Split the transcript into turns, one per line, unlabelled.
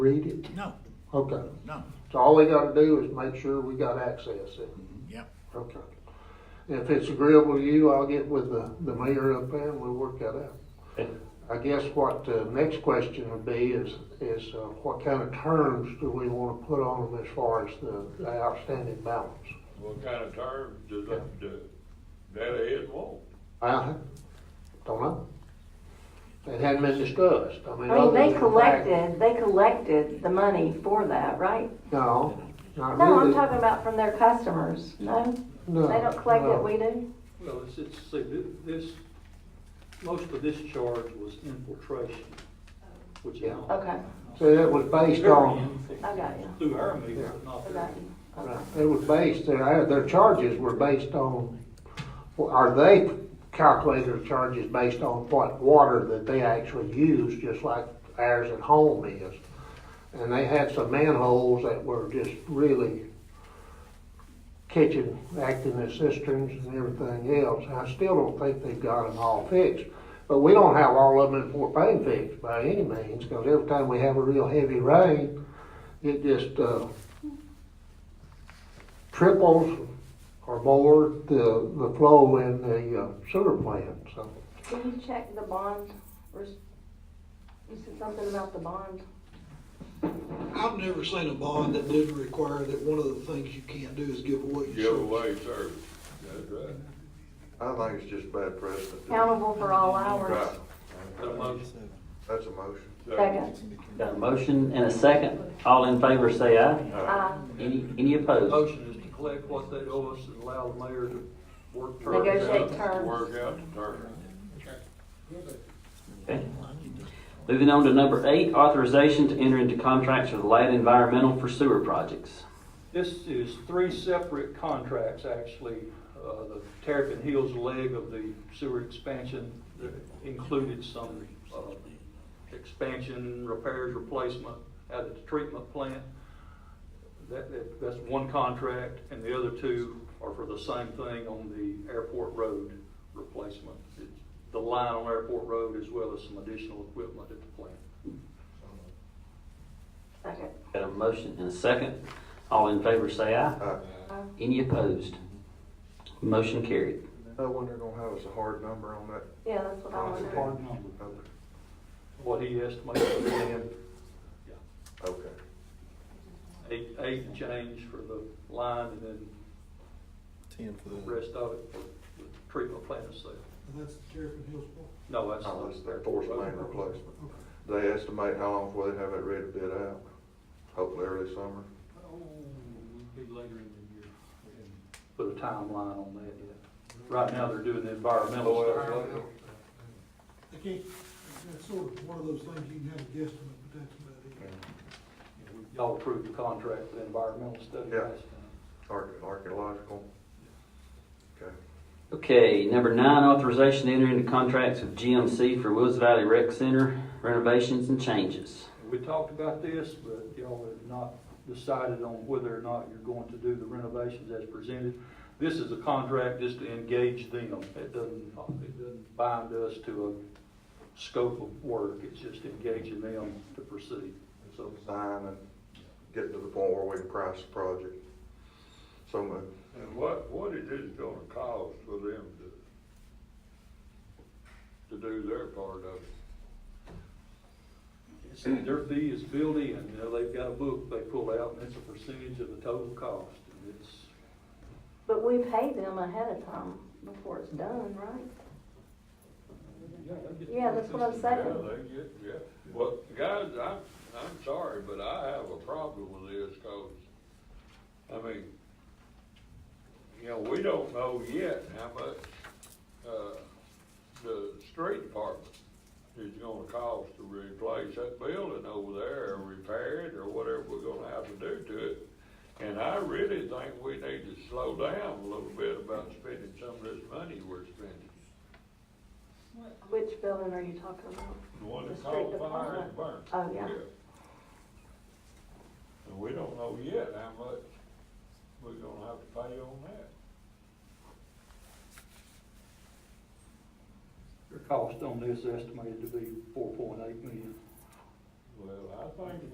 read it?
No,
Okay,
no,
so all we gotta do is make sure we got access to it.
Mm-hmm. yep,
Okay. If it's agreeable to you, I'll get with the, the mayor up there and we'll work that out.
And-
I guess what the next question would be is, is uh, what kind of terms do we wanna put on them as far as the the outstanding balance?
What kind of terms does that, do- that is want?
I don't know. It hadn't been discussed, I mean.
I mean,
other than
Oh, they
the fact-
collected, they collected the money for that, right?
No, not really. Uh,
No, I'm talking about from their customers, no?
No,
They don't collect
no.
it, we do?
Well, it's, it's, see, thi- this, most of this charge was infiltration, which is
Yeah.
not.
Okay,
So that was based
Very
on,
infil-
I got you.
Through our meter, but
I
not
got
their.
you. Okay.
right, it was based, their, their charges were based on, are they calculated their charges based on what water that they actually use, just like ours at home is? And they had some manholes that were just really catching, acting as cisterns and everything else. And I still don't think they've got them all fixed. But we don't have all of them in Fort Payne fixed by any means, because every time we have a real heavy rain, it just, uh, triples or more the, the flow in the uh, sewer plant, so.
Can you check the bond? Or s- You said something about the bond.
I've never seen a bond that didn't require that one of the things you can't do is give away your
Give
service.
away service, that's right.
I think it's just bad precedent.
Accountable for all hours.
Right.
That motion.
That's a motion.
Second.
Got a motion and a second. All in favor, say aye.
Uh,
Any, any
The
opposed?
motion is to collect what they owe us and allow the mayor to work terms. out.
Negotiate terms.
Work out the terms.
Okay. Moving on to number eight, authorization to enter into contracts with Lad Environmental for sewer projects.
This is three separate contracts, actually. Uh, The Terrapin Hills leg of the sewer expansion that included some uh, expansion, repairs, replacement at the treatment plant. That, that- that's one contract, and the other two are for the same thing on the airport road replacement. It's The line on airport road as well as some additional equipment at the plant.
second.
Got a motion and a second. All in favor, say aye.
I,
Uh,
Any opposed? Motion carried.
I wonder gonna have us a hard number on that.
Yeah, that's what I wanted.
Hard number. Okay,
What he estimated to be in
okay.
eight, eight and change for the line and then
Ten for the.
the rest of it for the treatment plant itself.
And that's the Terrapin Hills Board.
No, that's.
Oh, that's their force main replacement. They estimate how long before they have it ready to bid out? Hopefully early summer.
Be later in the year. Put a timeline on that, yeah. Right now, they're doing the environmental stuff.
I can't, that's sort of one of those things you can have a guesstimate, but that's about it.
Y'all approved the contract for the environmental study
Yeah.
last time.
Arch- Archaeological. Okay.
Okay, number nine, authorization to enter into contracts with GMC for Woods Valley Rec Center renovations and changes.
We talked about this, but y'all have not decided on whether or not you're going to do the renovations as presented. This is a contract just to engage them. It doesn't, it doesn't bind us to a scope of work. It's just engaging them to proceed. So
Design and get to the point where we can price the project. So moved.
And what, what is this gonna cost for them to, to do their part of it?
it's- their fee is built in. You know, they've got a book they pull out and it's a percentage of the total cost. And it's,
But we pay them ahead of time before it's done, right? Yeah, that's what I'm
Yeah,
saying.
they get, yeah. Well, guys, I'm, I'm sorry, but I have a problem with this, cause, I mean, you know, we don't know yet how much, uh, the street department is gonna cost to replace that building over there, or repair it, or whatever we're gonna have to do to it. And I really think we need to slow down a little bit about spending some of this money we're spending.
Which building are you talking about?
The one
The
that
street
caught fire and
department.
burned.
Oh, yeah.
And we don't know yet how much we're gonna have to pay on that.
their cost on this estimated to be four point eight million.
Well, I think